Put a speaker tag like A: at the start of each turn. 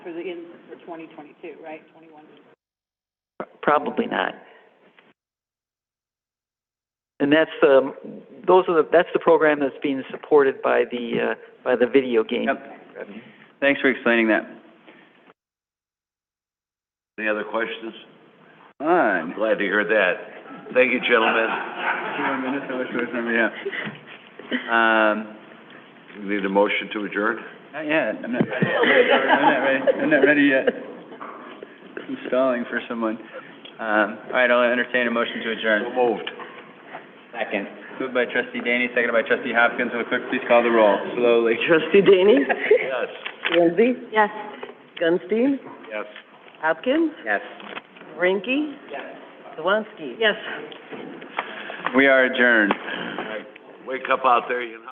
A: in for twenty twenty-two, right, twenty-one?
B: Probably not. And that's the, those are the, that's the program that's being supported by the, uh, by the video game.
C: Yep. Thanks for explaining that.
D: Any other questions? I'm
C: Fine.
D: glad to hear that. Thank you, gentlemen.
C: Two minutes, how much do I remember? Yeah. Um,
D: We Need a motion to adjourn?
C: not yet, I'm not, I'm not ready, I'm not ready yet. I'm stalling for someone. Um, all right, I'll entertain a motion to adjourn.
D: So moved.
C: Second. Moved by trustee Daney, seconded by trustee Hopkins. Will the clerk please call the roll? Slowly.
E: Trustee Daney?
D: Yes.
E: Lindsay?
A: Yes.
E: Gunstein?
D: Yes.
E: Hopkins?
C: Yes.
E: Rinky? Swansky?
A: Yes.
C: We are adjourned.
D: Wake up out there, you know.